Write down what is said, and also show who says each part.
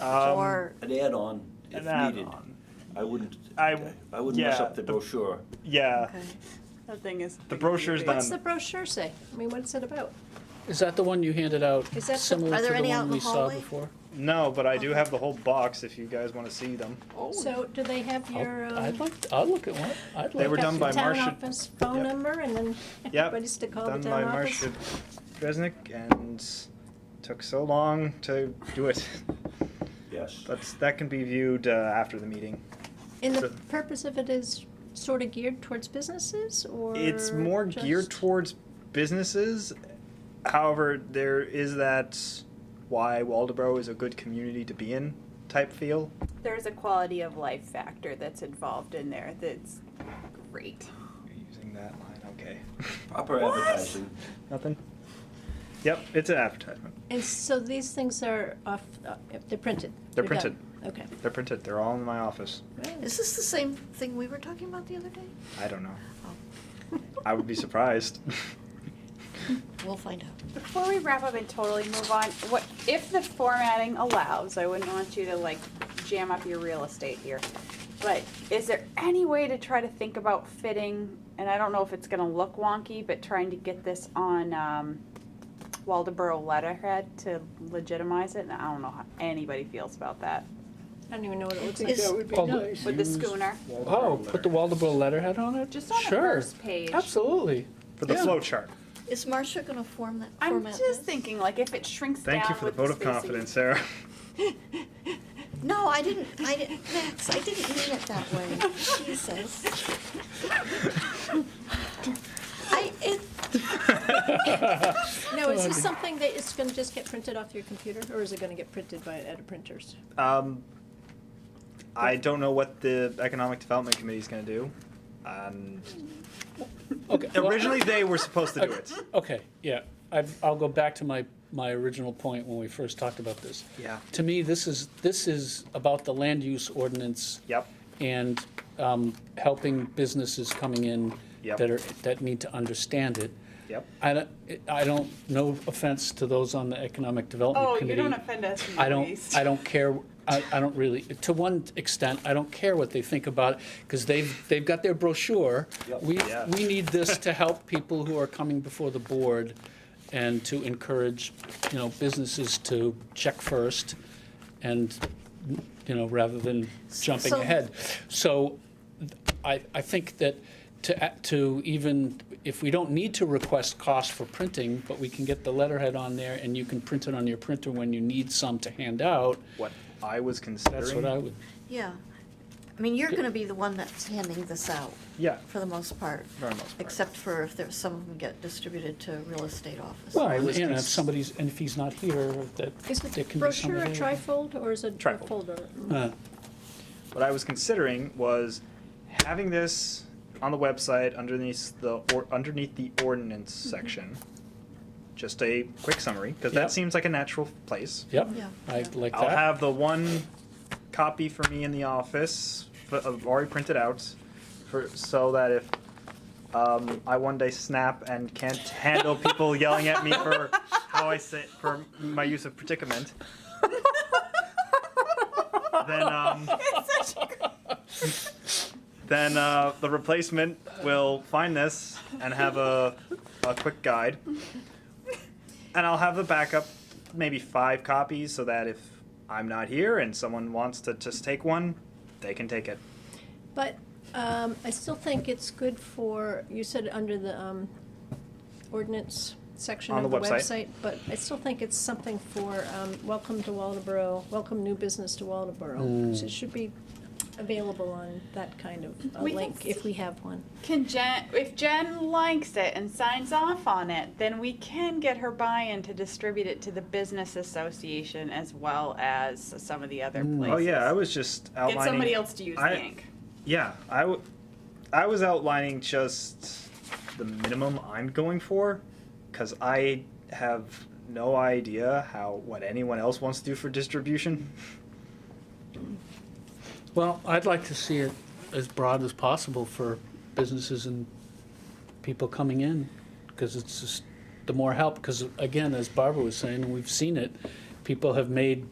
Speaker 1: Um,
Speaker 2: Or,
Speaker 3: An add-on if
Speaker 1: An
Speaker 3: needed.
Speaker 1: add-on.
Speaker 3: I wouldn't,
Speaker 1: I-
Speaker 3: I wouldn't mess
Speaker 1: yeah,
Speaker 3: up the
Speaker 1: the-
Speaker 3: brochure.
Speaker 1: Yeah,
Speaker 2: okay.
Speaker 4: That thing is.
Speaker 1: The brochure's done.
Speaker 2: What's the brochure say? I mean, what's it about?
Speaker 5: Is that the one you handed out
Speaker 2: Is that the-
Speaker 5: similar
Speaker 2: are
Speaker 5: to
Speaker 2: there
Speaker 5: the
Speaker 2: any out
Speaker 5: one
Speaker 2: in the
Speaker 5: we saw
Speaker 2: hallway?
Speaker 5: before?
Speaker 1: no, but I do have the whole box if you guys want to see them.
Speaker 2: So do they have
Speaker 5: I'll-
Speaker 2: your, um,
Speaker 5: I'd like, I'll look at one. I'd
Speaker 1: They
Speaker 5: like
Speaker 1: were
Speaker 5: to
Speaker 1: done
Speaker 5: see
Speaker 1: by
Speaker 5: it.
Speaker 2: town
Speaker 1: Marcia-
Speaker 2: office phone
Speaker 1: yep.
Speaker 2: number and then
Speaker 1: Yep.
Speaker 2: everybody's to call the
Speaker 1: Done
Speaker 2: town
Speaker 1: by
Speaker 2: office?
Speaker 1: Marcia Dresnick and took so long to do it.
Speaker 3: Yes.
Speaker 1: That's, that can be viewed uh, after the meeting.
Speaker 2: And the
Speaker 1: So-
Speaker 2: purpose of it is sort of geared towards businesses or?
Speaker 1: It's more geared
Speaker 2: just-
Speaker 1: towards businesses. However, there is that why Waldeboro is a good community to be in type feel.
Speaker 4: There's a quality of life factor that's involved in there that's great.
Speaker 1: You're using that line, okay.
Speaker 3: Proper advertising.
Speaker 1: Nothing? Yep, it's an advertisement.
Speaker 2: And so these things are off, uh, they're printed?
Speaker 1: They're
Speaker 2: done. Okay.
Speaker 1: They're printed, they're all in my office.
Speaker 2: Right.
Speaker 6: Is this the same thing we were talking about the other day?
Speaker 1: I don't know.
Speaker 6: Oh.
Speaker 1: I would be surprised.
Speaker 6: We'll find out.
Speaker 4: Before we wrap up and totally move on, what, if the formatting allows, I wouldn't want you to like jam up your real estate here. But is there any way to try to think about fitting, and I don't know if it's gonna look wonky, but trying to get this on, um, Waldeboro letterhead to legitimize it, and I don't know how anybody feels about that.
Speaker 2: I don't even know what it looks
Speaker 6: think
Speaker 2: like.
Speaker 6: that
Speaker 5: would be Oh, nice.
Speaker 4: With the schooner,
Speaker 5: Oh, put the Waldeboro letterhead on it?
Speaker 4: just on the
Speaker 5: Sure.
Speaker 4: first page.
Speaker 5: Absolutely.
Speaker 1: For the
Speaker 5: Yeah.
Speaker 1: flow chart.
Speaker 6: Is Marcia gonna form that
Speaker 4: I'm
Speaker 6: format?
Speaker 4: just
Speaker 6: list?
Speaker 4: thinking, like, if it shrinks down
Speaker 1: Thank you for the
Speaker 4: with
Speaker 1: vote of
Speaker 4: spacing-
Speaker 1: confidence, Sarah.
Speaker 6: No, I didn't, I didn't, Max, I didn't mean it that way. Jesus. I, it,
Speaker 2: No, is this something that is gonna just get printed off your computer or is it gonna get printed by, at a printers?
Speaker 1: Um, I don't know what the Economic Development Committee is going to do. Um,
Speaker 5: Okay. well,
Speaker 1: originally, they were supposed to do it.
Speaker 5: Okay, yeah. I've, I'll go back to my, my original point when we first talked about this.
Speaker 1: Yeah.
Speaker 5: To me, this is, this is about the land use ordinance
Speaker 1: Yep.
Speaker 5: and um, helping businesses coming in
Speaker 1: Yep.
Speaker 5: that are, that need to understand it.
Speaker 1: Yep.
Speaker 5: I don't, I don't, no offense to those on the Economic Development
Speaker 4: Oh, you
Speaker 5: Committee.
Speaker 4: don't offend us. you
Speaker 5: I don't,
Speaker 4: beast.
Speaker 5: I don't care, I, I don't really, to one extent, I don't care what they think about it, because they've, they've got their brochure.
Speaker 3: Yep.
Speaker 5: We,
Speaker 1: Yeah.
Speaker 5: we need this to help people who are coming before the board and to encourage, you know, businesses to check first and, you know, rather than jumping
Speaker 6: So-
Speaker 5: ahead. So I, I think that to, a- to even, if we don't need to request cost for printing, but we can get the letterhead on there and you can print it on your printer when you need some to hand out,
Speaker 1: What I was considering.
Speaker 5: that's what I would,
Speaker 6: yeah. I mean, you're gonna be the one that's handing this out,
Speaker 1: Yeah.
Speaker 6: for the most part.
Speaker 1: For the most part.
Speaker 6: Except for if there's, some of them get distributed to real estate offices.
Speaker 5: well,
Speaker 1: I
Speaker 5: and
Speaker 1: was
Speaker 5: and if
Speaker 1: cons-
Speaker 5: somebody's, and if he's not here, that
Speaker 2: Is
Speaker 5: there
Speaker 2: the
Speaker 5: can be
Speaker 2: brochure a
Speaker 5: somebody.
Speaker 2: trifold or is it a
Speaker 1: Trifold.
Speaker 2: folder?
Speaker 5: Uh,
Speaker 1: What I was considering was having this on the website underneath the or, underneath the ordinance
Speaker 5: Mm-hmm.
Speaker 1: section. Just a quick summary, because
Speaker 5: Yep.
Speaker 1: that seems like a natural place.
Speaker 5: Yep,
Speaker 6: Yeah.
Speaker 5: I like
Speaker 1: I'll
Speaker 5: that.
Speaker 1: have the one copy for me in the office, f- of already printed out, for so that if um, I one day snap and can't handle people yelling at me for how I say for my use of predicament, then um,
Speaker 4: It's such a great-
Speaker 1: then uh, the replacement will find this and have a, a quick guide. And I'll have the backup, maybe five copies, so that if I'm not here and someone wants to just take one, they can take it.
Speaker 2: But um, I still think it's good for, you said under the um, ordinance section
Speaker 1: On
Speaker 2: of
Speaker 1: the
Speaker 2: the
Speaker 1: website.
Speaker 2: website, but I still think it's something for, um, welcome to Waldeboro, welcome new business to Waldeboro. So It should be available on that kind of uh,
Speaker 4: We can
Speaker 2: link, if we have one.
Speaker 4: Can Jen, if Jen likes it and signs off on it, then we can get her buy-in to distribute it to the business association as well as some of the other
Speaker 5: Hmm.
Speaker 4: places.
Speaker 1: Oh yeah, I was just outlining.
Speaker 4: Get somebody else to use
Speaker 1: I-
Speaker 4: the ink.
Speaker 1: Yeah, I, w- I was outlining just the minimum I'm going for, because I have no idea how what anyone else wants to do for distribution.
Speaker 5: Well, I'd like to see it as broad as possible for businesses and people coming in, because it's just, the more help, because again, as Barbara was saying, and we've seen it, people have made